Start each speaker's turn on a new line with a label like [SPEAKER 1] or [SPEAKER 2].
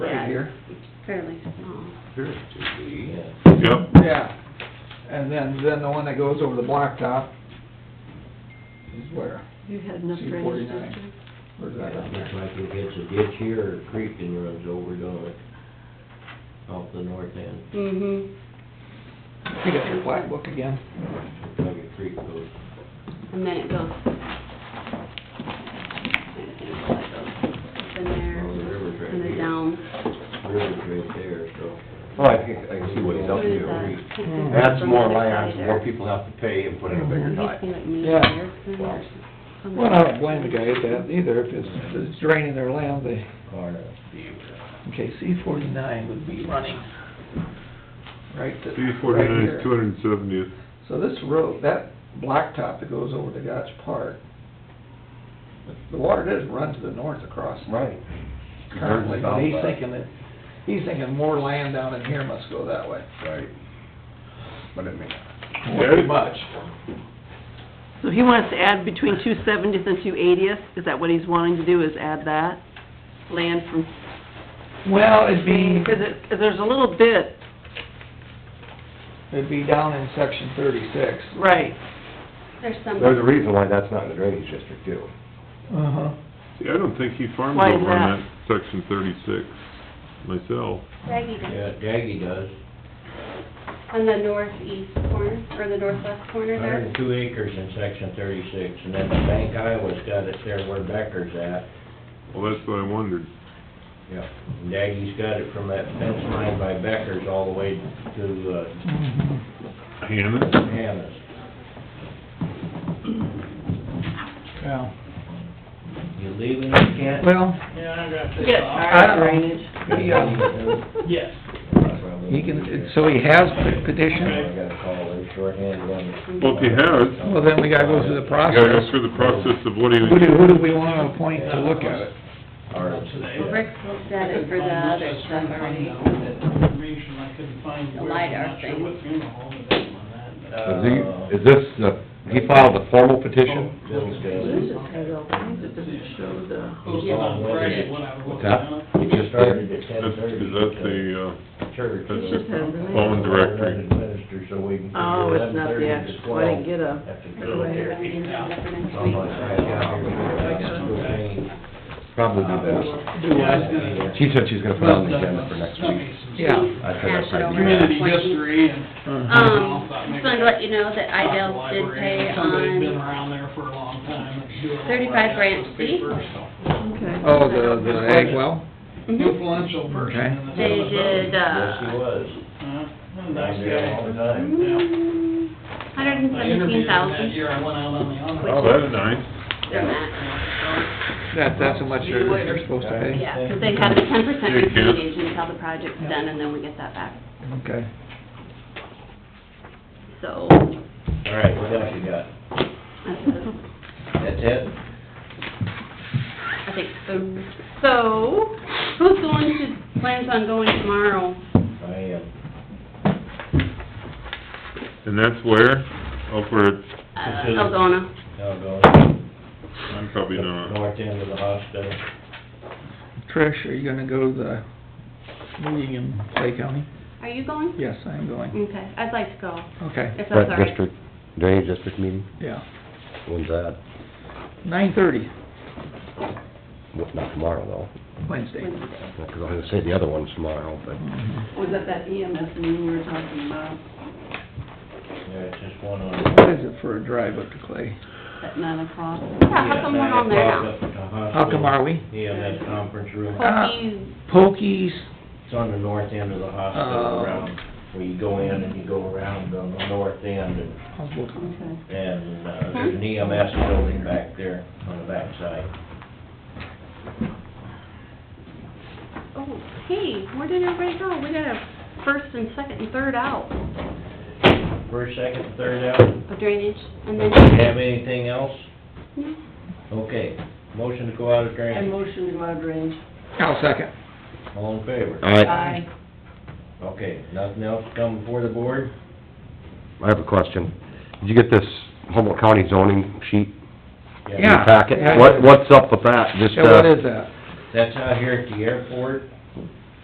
[SPEAKER 1] right here?
[SPEAKER 2] fairly small.
[SPEAKER 1] Appears to be.
[SPEAKER 3] Yep,
[SPEAKER 4] Yeah, and then, then the one that goes over the blacktop is where,
[SPEAKER 2] You had enough
[SPEAKER 4] Two
[SPEAKER 2] drainage,
[SPEAKER 4] forty-nine.
[SPEAKER 2] didn't you?
[SPEAKER 4] where's that on
[SPEAKER 5] Looks
[SPEAKER 4] there?
[SPEAKER 5] like it hits a ditch here or a creek and runs over, don't it? Off the north end,
[SPEAKER 2] Mm-hmm,
[SPEAKER 4] You got your black book again?
[SPEAKER 5] looks like a creek goes.
[SPEAKER 2] and then it goes. Trying to think how that goes. Up in there,
[SPEAKER 5] Well, the river's right
[SPEAKER 2] and then
[SPEAKER 5] here.
[SPEAKER 2] down.
[SPEAKER 5] River's right there, so.
[SPEAKER 6] Well, Oh, I can, I can see what he's up
[SPEAKER 2] What is that?
[SPEAKER 6] to.
[SPEAKER 2] I think
[SPEAKER 4] Mm-hmm.
[SPEAKER 2] it's
[SPEAKER 6] That's
[SPEAKER 2] from
[SPEAKER 6] more
[SPEAKER 2] the other
[SPEAKER 6] land,
[SPEAKER 2] side
[SPEAKER 6] more
[SPEAKER 2] there.
[SPEAKER 6] people have to pay and put in a
[SPEAKER 2] It
[SPEAKER 7] Mm-hmm.
[SPEAKER 6] bigger
[SPEAKER 2] used to be
[SPEAKER 6] tie.
[SPEAKER 2] like me,
[SPEAKER 4] Yeah.
[SPEAKER 2] Erickson
[SPEAKER 6] Wow.
[SPEAKER 2] or something.
[SPEAKER 4] Well, I don't blame the guy at that either, if it's, if it's draining their land, they,
[SPEAKER 5] Or,
[SPEAKER 4] okay, C forty-nine would be running. Right to,
[SPEAKER 3] D
[SPEAKER 4] right
[SPEAKER 3] forty-nine, two
[SPEAKER 4] here.
[SPEAKER 3] hundred and seventieth,
[SPEAKER 4] So this road, that blacktop that goes over to Gotch Park, the water does run to the north across
[SPEAKER 6] Right.
[SPEAKER 4] currently, but he's
[SPEAKER 6] Southwest.
[SPEAKER 4] thinking that, he's thinking more land down in here must go that way.
[SPEAKER 6] Right. But it may not.
[SPEAKER 4] Pretty much.
[SPEAKER 7] So he wants to add between two seventieth and two eightieth, is that what he's wanting to do, is add that? Land from,
[SPEAKER 4] Well, it'd be,
[SPEAKER 7] because it, 'cause there's a little bit,
[SPEAKER 4] it'd be down in section thirty-six.
[SPEAKER 7] right,
[SPEAKER 2] There's some.
[SPEAKER 6] There's a reason why that's not in the drainage district too.
[SPEAKER 4] Uh-huh.
[SPEAKER 3] see, I don't think he farms
[SPEAKER 7] Why is
[SPEAKER 3] over on that section thirty-six myself.
[SPEAKER 2] Craggy does.
[SPEAKER 5] yeah, Jaggy does,
[SPEAKER 2] On the northeast corner, or the northwest corner
[SPEAKER 5] hundred and
[SPEAKER 2] there?
[SPEAKER 5] two acres in section thirty-six, and then the Bank Iowa's got it there where Becker's at.
[SPEAKER 3] Well, that's what I wondered.
[SPEAKER 5] Yeah. Jaggy's got it from that fence line by Becker's all the way to, uh,
[SPEAKER 4] Mm-hmm.
[SPEAKER 3] Hannah?
[SPEAKER 5] Hannah's.
[SPEAKER 4] Yeah.
[SPEAKER 5] You leaving, you can't?
[SPEAKER 4] Well,
[SPEAKER 7] yes,
[SPEAKER 4] I
[SPEAKER 7] our
[SPEAKER 4] don't-
[SPEAKER 7] drainage.
[SPEAKER 4] he, uh,
[SPEAKER 8] Yes.
[SPEAKER 4] he can, so he has the
[SPEAKER 5] I
[SPEAKER 4] petition,
[SPEAKER 5] gotta call her shorthand one.
[SPEAKER 3] Well, if he has,
[SPEAKER 4] well, then we gotta go through the
[SPEAKER 3] you gotta go
[SPEAKER 4] process.
[SPEAKER 3] through the process of what he,
[SPEAKER 4] Who do, who do we wanna appoint to look at it?
[SPEAKER 5] Or-
[SPEAKER 2] Well, Rick's looked at it for the other stuff already.
[SPEAKER 8] Information I couldn't find.
[SPEAKER 2] The
[SPEAKER 8] where,
[SPEAKER 2] LiDAR
[SPEAKER 8] I'm not sure
[SPEAKER 2] thing.
[SPEAKER 8] what funeral home it is on that, but-
[SPEAKER 5] Uh,
[SPEAKER 6] Is he, is this, the- he filed a formal petition?
[SPEAKER 5] Bill's got
[SPEAKER 7] This
[SPEAKER 5] it.
[SPEAKER 7] is kind of, I think it doesn't show the.
[SPEAKER 8] Close on Friday when I was looking
[SPEAKER 6] What's that?
[SPEAKER 8] at it.
[SPEAKER 5] He just started at ten
[SPEAKER 3] that's,
[SPEAKER 5] thirty.
[SPEAKER 3] is that the, uh,
[SPEAKER 5] Church.
[SPEAKER 3] that's
[SPEAKER 7] just has the-
[SPEAKER 3] phone directory?
[SPEAKER 5] Administer, so we can.
[SPEAKER 7] Oh, it's not the actual, I didn't get
[SPEAKER 5] After
[SPEAKER 7] a,
[SPEAKER 2] That's why I have
[SPEAKER 5] therapy.
[SPEAKER 2] an agenda for next
[SPEAKER 5] So
[SPEAKER 2] week.
[SPEAKER 5] much I got here.
[SPEAKER 6] Probably the
[SPEAKER 8] Yeah, it's gonna-
[SPEAKER 6] best. She said she's gonna put on the agenda for next
[SPEAKER 8] Tell
[SPEAKER 6] week.
[SPEAKER 8] me some
[SPEAKER 4] Yeah.
[SPEAKER 6] I said
[SPEAKER 2] Pass
[SPEAKER 6] that's
[SPEAKER 2] it
[SPEAKER 6] right.
[SPEAKER 2] over.
[SPEAKER 8] Community history and.
[SPEAKER 2] Um, just wanted to let you know that Idell did pay
[SPEAKER 8] Somebody's been
[SPEAKER 2] on
[SPEAKER 8] around there for a long time. and doing all
[SPEAKER 2] 35
[SPEAKER 8] right after
[SPEAKER 2] Branch
[SPEAKER 8] the
[SPEAKER 2] C.
[SPEAKER 8] papers, so.
[SPEAKER 2] Mm-hmm.
[SPEAKER 7] okay.
[SPEAKER 4] Oh, the, the ag well?
[SPEAKER 2] Mhm.
[SPEAKER 8] Influential person
[SPEAKER 4] Okay.
[SPEAKER 8] in this.
[SPEAKER 2] They did,
[SPEAKER 5] Yes, he
[SPEAKER 2] uh,
[SPEAKER 5] was.
[SPEAKER 8] Huh? Nice
[SPEAKER 5] Down there all
[SPEAKER 8] guy.
[SPEAKER 5] the time.
[SPEAKER 2] hundred and
[SPEAKER 8] I interviewed
[SPEAKER 2] seventeen
[SPEAKER 8] him that
[SPEAKER 2] thousand,
[SPEAKER 8] year I went out on the honor.
[SPEAKER 3] Oh, that's nice.
[SPEAKER 2] their max.
[SPEAKER 4] That, that's how much they're, they're supposed to pay?
[SPEAKER 2] Yeah, because they have a ten percent
[SPEAKER 3] Hey, Ken.
[SPEAKER 2] recommendation until the project's done, and then we get that back.
[SPEAKER 4] Okay.
[SPEAKER 2] So,
[SPEAKER 5] All right, what else you got?
[SPEAKER 2] that's-
[SPEAKER 5] That's it?
[SPEAKER 2] I think so. So, who's going to, plans on going tomorrow?
[SPEAKER 5] I am.
[SPEAKER 3] And that's where? Over at,
[SPEAKER 2] Uh,
[SPEAKER 5] Consider-
[SPEAKER 2] Algona.
[SPEAKER 5] Now going.
[SPEAKER 3] I'm probably not,
[SPEAKER 5] North end of the hospital.
[SPEAKER 4] Trish, are you gonna go to the meeting in Clay County?
[SPEAKER 2] Are you going?
[SPEAKER 4] Yes, I am going.
[SPEAKER 2] Okay, I'd like to go,
[SPEAKER 4] Okay,
[SPEAKER 2] if that's all
[SPEAKER 6] Brett
[SPEAKER 2] right.
[SPEAKER 6] District, drainage district meeting,
[SPEAKER 4] yeah.
[SPEAKER 6] when's that?
[SPEAKER 4] Nine thirty,
[SPEAKER 6] Well, Not tomorrow though,
[SPEAKER 4] Wednesday.
[SPEAKER 2] Wednesday.
[SPEAKER 6] because I was gonna say the other one's tomorrow, but.
[SPEAKER 4] Mhm.
[SPEAKER 7] Was that that E EMS meeting we were talking about,
[SPEAKER 5] Yeah, it's just one on.
[SPEAKER 4] What is it for a drive up to Clay?
[SPEAKER 7] at nine o'clock?
[SPEAKER 2] Yeah, how come we're on there now?
[SPEAKER 4] How come are we?
[SPEAKER 5] Yeah, that conference room,
[SPEAKER 4] Uh,
[SPEAKER 2] Pokey's
[SPEAKER 4] Pokies,
[SPEAKER 5] it's on the north end of the hospital
[SPEAKER 4] Oh.
[SPEAKER 5] around, where you go in and you go around on the north end and,
[SPEAKER 4] I'll look.
[SPEAKER 7] Okay.
[SPEAKER 5] and, uh, there's an EMS building back there on the backside.
[SPEAKER 2] Oh, hey, where did everybody go? We got a first and second and third out
[SPEAKER 5] First, second, third out,
[SPEAKER 2] of drainage, and
[SPEAKER 5] do
[SPEAKER 2] then,
[SPEAKER 5] you have anything else?
[SPEAKER 2] No.
[SPEAKER 5] Okay, motion to go out of
[SPEAKER 7] I
[SPEAKER 5] drainage,
[SPEAKER 7] motion to go out of drainage.
[SPEAKER 4] I'll second.
[SPEAKER 5] all in favor?
[SPEAKER 6] All right,
[SPEAKER 7] Aye.
[SPEAKER 5] Okay, nothing else come before the board?
[SPEAKER 6] I have a question. Did you get this Humboldt County zoning sheet in
[SPEAKER 4] Yeah.
[SPEAKER 6] your packet?
[SPEAKER 4] Yeah.
[SPEAKER 6] What, what's up with that? Just,
[SPEAKER 4] Yeah, what
[SPEAKER 6] uh,
[SPEAKER 4] is that?
[SPEAKER 5] That's out here at the airport,